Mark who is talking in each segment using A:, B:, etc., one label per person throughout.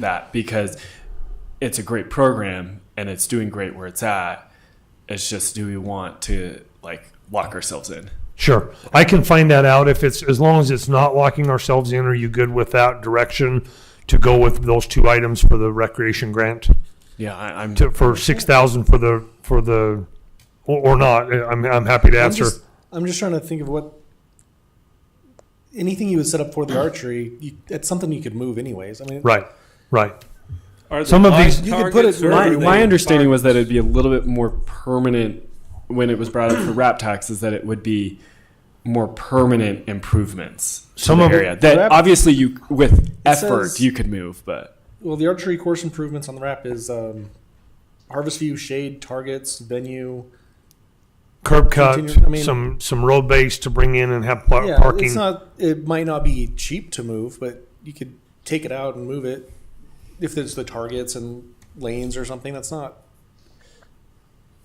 A: that because it's a great program and it's doing great where it's at. It's just do we want to like lock ourselves in?
B: Sure. I can find that out if it's, as long as it's not locking ourselves in, are you good with that direction to go with those two items for the recreation grant?
A: Yeah, I, I'm.
B: To, for six thousand for the, for the, or, or not, I'm, I'm happy to
C: I'm
B: answer.
C: just- I'm just trying to think of what anything you would set up for the archery. You, it's something you could move anyways. I mean,
B: Right, right.
D: Are
B: Some
D: there
B: of these-
D: live
C: You could put
D: targets
C: it-
D: or
A: My,
D: are they
A: my understanding
D: targets?
A: was that it'd be a little bit more permanent when it was brought up for rap tax is that it would be more permanent improvements to
B: Some
A: the
B: of it-
A: area that
C: Rap-
A: obviously you with effort
C: says-
A: you could move, but
C: well, the archery course improvements on the wrap is um, harvest view, shade, targets, venue.
B: Curb cut,
C: Continue- I mean-
B: some, some road base to bring in and have par-
C: yeah,
B: Uh, parking.
C: it's not. It might not be cheap to move, but you could take it out and move it if there's the targets and lanes or something. That's not.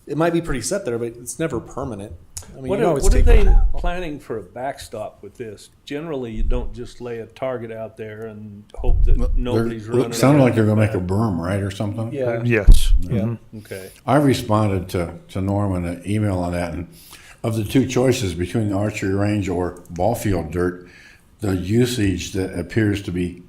C: It might be pretty set there, but it's never permanent. I mean,
D: What
C: you
D: are,
C: always
D: what are
C: take
D: they planning for a backstop with this? Generally, you don't just lay a target out there and hope that nobody's
E: They're-
D: running.
E: It sounded
D: around
E: like they're gonna make a
D: back.
E: berm, right, or something?
C: Yeah.
B: Yes. Mm-hmm.
C: Yeah.
D: Okay.
E: I responded to, to Norm in an email on that, and of the two choices between the archery range or ball field dirt, the usage that appears to be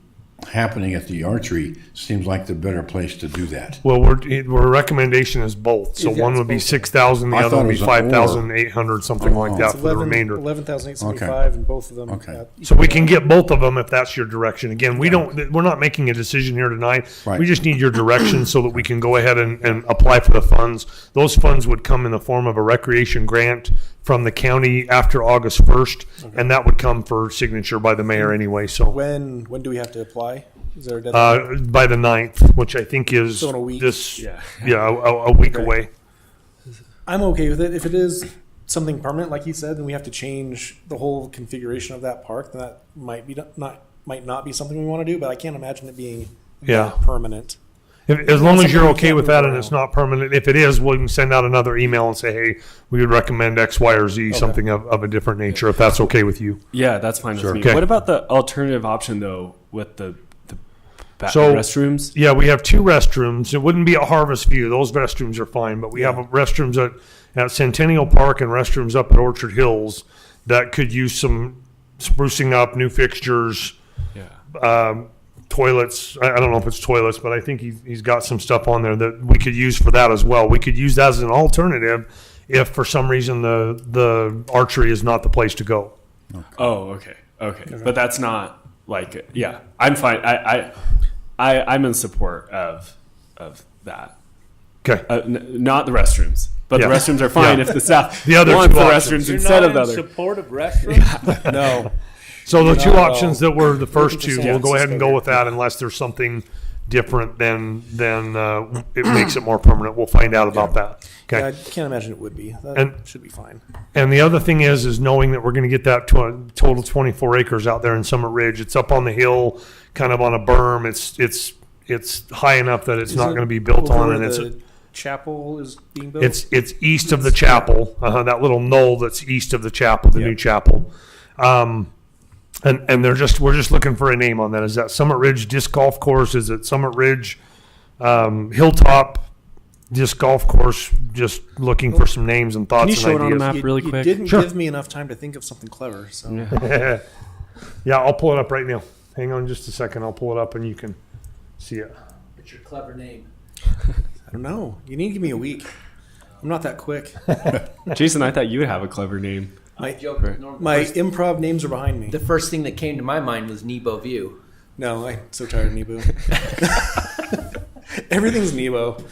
E: happening at the archery seems like the better place to do that.
B: Well, we're, it- our recommendation is both, so
C: Yeah,
B: one
C: it's
B: would be
C: both.
B: six thousand, the
E: I
B: other
E: thought
B: would
E: it
B: be
E: was an
B: five thousand eight hundred, something like
E: Oh.
B: that for the remainder.
C: Eleven thousand eight seventy-five, and both of them.
E: Okay.
C: at-
B: So we can get both of them if that's your direction. Again, we don't, th- we're not making a decision here tonight.
E: Right.
B: We just need your direction so that we can go ahead and, and apply for the funds. Those funds would come in the form of a recreation grant from the county after August first, and that would come for signature by the mayor anyway, so.
C: When when do we have to apply? Is there a deadline?
B: Uh, by the ninth, which I think is
C: So in a week.
B: this,
A: Yeah.
B: yeah, a, a- a week away.
C: I'm okay with it. If it is something permanent, like you said, then we have to change the whole configuration of that park. Then that might be not might not be something we want to do. But I can't imagine it being
B: Yeah.
C: that permanent.
B: If, as long as you're
C: Something we
B: okay
C: can't
B: with
C: move
B: that and
C: around.
B: it's not permanent, if it is, we can send out another email and say, hey, we would recommend X, Y, or Z, something of, of a different nature, if that's okay with you.
A: yeah, that's fine with me.
B: Okay.
A: What about the alternative option though with the the ba-
B: So-
A: restrooms?
B: Yeah, we have two restrooms. It wouldn't be a Harvest View. Those restrooms are fine, but we have restrooms at, at Centennial Park and restrooms up at Orchard Hills that could use some sprucing up, new fixtures,
A: Yeah.
B: um, toilets. I, I don't know if it's toilets, but I think he's, he's got some stuff on there that we could use for that as well. We could use that as an alternative if for some reason the, the archery is not the place to go.
A: Oh, okay, okay, but that's not like yeah. I'm fine. I I, I I'm in support of of that.
B: Okay.
A: uh, n- not the restrooms, but
B: Yeah.
A: the restrooms are fine
B: Yeah.
A: if the staff
B: The other
A: wants
B: two
A: the
B: options.
A: restrooms
D: You're
A: instead
D: not
A: of the
D: in
A: other.
D: support of restrooms?
C: No,
B: So the two
C: No.
B: options that were the first two, we'll go
C: Yeah.
B: ahead and go with that unless there's something different than, then uh, it makes it more permanent. We'll find out about that. Okay.
C: I can't imagine it would be. That
B: And-
C: should be fine.
B: And the other thing is, is knowing that we're going to get that to total 24 acres out there in Summit Ridge. It's up on the hill, kind of on a berm. It's it's it's high enough that it's not going to be built on, and it's
C: the chapel is being built.
B: it's it's east of the chapel, uh, that little knoll that's east of the chapel, the new chapel. Um, and and they're just we're just looking for a name on that. Is that Summit Ridge Disc Golf Course? Is it Summit Ridge um, Hilltop Disc Golf Course? Just looking for some names and thoughts.
A: you
B: and
A: show it on a
B: ideas.
A: map? really
C: you
A: quick.
C: didn't
B: Sure.
C: give me enough time to think of something clever. So
B: yeah, I'll pull it up right now. Hang on just a second. I'll pull it up and you can see it.
F: It's your clever name.
C: I don't know. You need to give me a week. I'm not that quick.
A: Jason, I thought you would have a clever name.
C: My
F: Joke with Norm.
C: my
F: First-
C: improv names are behind me.
F: the first thing that came to my mind was Nebo View.
C: No, I'm so tired of Nebo. Everything's Nebo.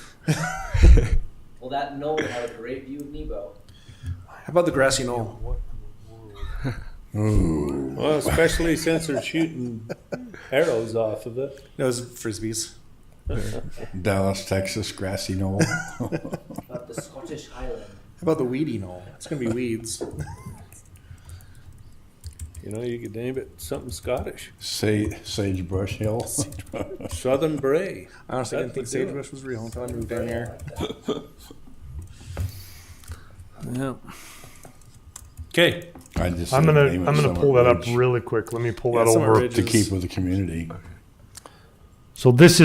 F: Well, that knoll had a great view of Nebo.
C: How about the grassy knoll?
D: Well, especially since they're shooting arrows off of it.
C: No, it's frisbees.
E: Dallas, Texas, grassy knoll.
F: About the Scottish Highland.
C: How about the weedy knoll? It's gonna be weeds.
D: You know, you could name it something Scottish.
E: Sa- Sagebrush Hill.
D: Southern Bray.
C: I honestly didn't think
D: That's what they
C: sagebrush was real until I moved down here.
D: Yeah. Okay.
E: I just
B: I'm
E: said
B: gonna
E: name
B: I'm gonna
E: it Summit
B: pull that up
E: Ridge
B: really quick. Let me pull
C: Yeah,
B: that
C: Summit
B: over.
C: Ridge.
E: To keep with the community.
B: So this is.